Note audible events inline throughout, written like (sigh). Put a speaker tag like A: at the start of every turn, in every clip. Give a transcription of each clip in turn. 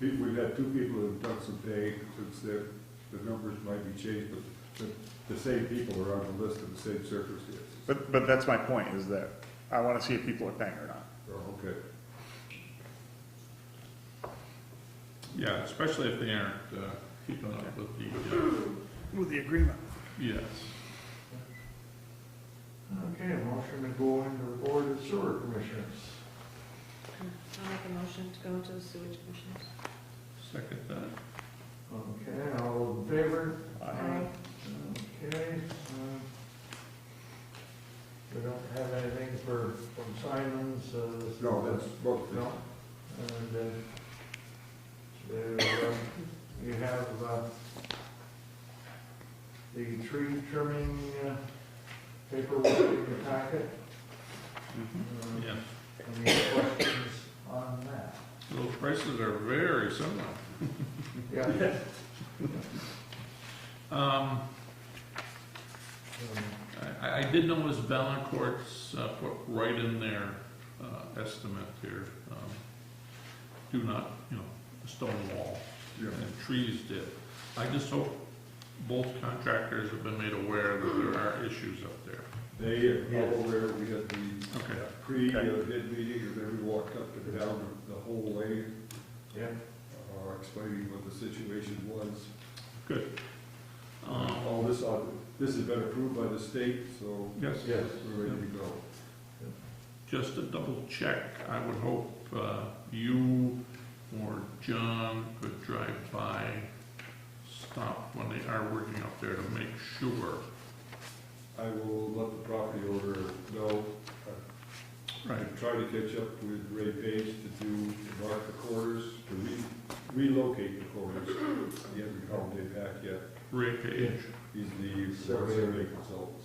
A: Pete, We've had two people who've done some pay, since the, the numbers might be changed, but the, the same people are on the list of the same circumstances.
B: But, but that's my point, is that I want to see if people are paying or not.
A: Oh, okay.
C: Yeah, especially if they aren't uh, keeping up with the, uh,
B: With the agreement.
C: yes.
D: Okay, motion to go into the Board of Sewer Commissioners.
E: I'll make a motion to go into the sewage commission.
C: Second uh, that.
D: Okay, all those in favor?
E: Aye.
D: Okay. uh, We don't have anything for, from Simons, uh, this is-
A: No, that's both.
D: No. And, uh, there, um, you have, uh, the tree trimming uh, paperwork in your packet. Um,
C: Yeah,
D: Any questions on that?
C: those prices are very similar.
D: Yeah. um,
C: Um, I, I did notice Valancourt's uh, put right in their uh, estimate here, um, do not, you know, a stone wall,
A: Yeah.
C: and trees did. I just hope both contractors have been made aware that there are issues up there.
A: They, all over, we had the
C: Okay.
A: pre-bid meeting, and then we walked up and down the whole way,
D: Yeah,
A: uh, explaining what the situation was.
C: Good. Um,
A: All this, uh, this has been approved by the state, so
C: Yes.
D: yes.
A: we're ready to go.
C: Just to double check, I would hope uh, you or John could drive by, stop when they are working up there to make sure.
A: I will let the property owner know, I'm trying to catch up with Ray Page to do, to mark the corners, to re- relocate the corners. He hasn't called me back yet,
C: Ray Page,
A: he's the
D: Surveyor.
A: survey consultant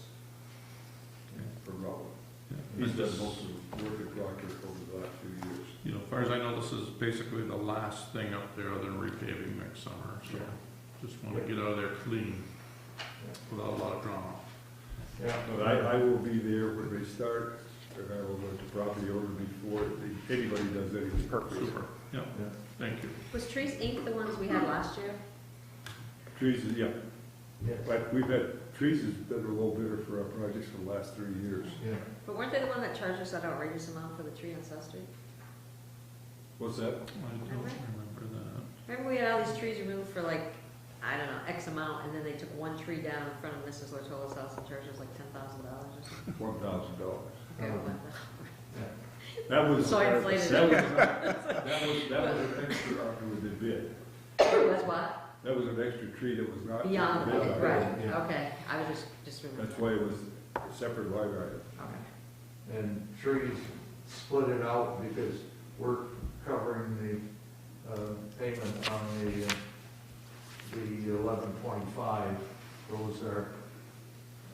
A: from Rutland.
C: yeah,
A: He's done
C: this is-
A: most of the work at Proctor over the last few years.
C: You know, as far as I know, this is basically the last thing up there other than repaving next summer, so just want to get out of there clean without a lot of drama.
D: Yeah.
A: But I, I will be there when they start, and I will let the property owner before anybody does anything.
C: Super, yeah,
D: Yeah.
C: thank you.
E: Was Trees Inc. the ones we had last year?
A: Trees, is- yeah,
D: Yes.
A: but we've had, trees has been a low bidder for our projects for the last three years.
D: Yeah.
E: But weren't they the one that charged us that outrageous amount for the tree on South Street?
A: What's that?
C: I don't remember that.
E: Remember we had all these trees removed for like, I don't know, X amount, and then they took one tree down in front of Mrs. Lortola's house and charged us like ten thousand dollars or something?
A: One thousand dollars.
E: Okay,
D: Oh.
E: well,
A: That was.
E: So I inflated
A: That
E: it.
A: was,
E: (laughs)
A: that was, that was an extra after we did bid.
E: It was what?
A: That was an extra tree that was not.
E: Beyond,
A: bid
E: okay,
A: on.
E: right,
D: Yeah.
E: okay, I was just, just remembering.
A: That's why it was a separate line item.
E: Okay.
D: And trees split it out because we're covering the uh, payment on the, uh, the eleven twenty-five. Those are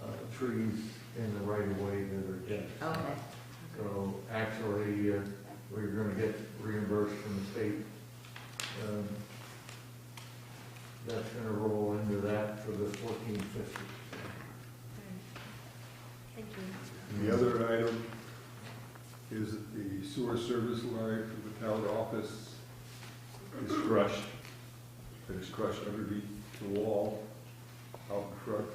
D: uh, trees in the right of way that are dead.
E: Okay.
D: So actually, uh, we're gonna get reimbursed from the state. Um, That's gonna roll into that for the fourteen fifty.
E: Thank you.
A: The other item is that the sewer service line from the town office is crushed. It is crushed underneath the wall out in front.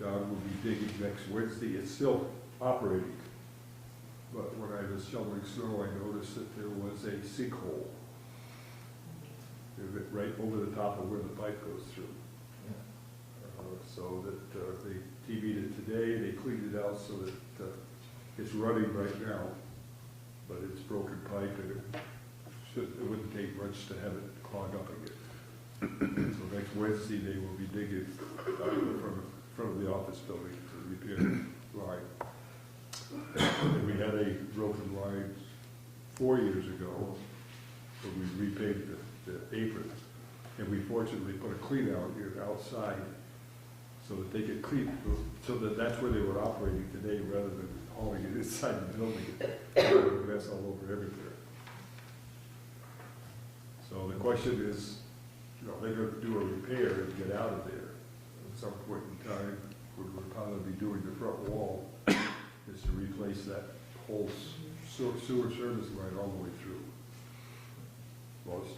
A: John will be digging next Wednesday. It's still operating. But when I was shoveling snow, I noticed that there was a sinkhole It went right over the top of where the pipe goes through. Uh, So that uh, they TV'd it today, they cleaned it out so that uh, it's running right now, but it's broken pipe and it should, it wouldn't take much to have it clog up again. So next Wednesday, they will be digging out in front of, front of the office building to repair the line. And we had a broken line four years ago when we repaved the, the apron. And we fortunately put a clean out here outside so that they could clean, so that that's where they were operating today rather than hauling it inside the building. It would Mess all over everywhere. So the question is, you know, they're gonna do a repair and get out of there. At some point in time, what we're probably doing the front wall is to replace that whole s- sewer sewer service line all the way through. Well, it's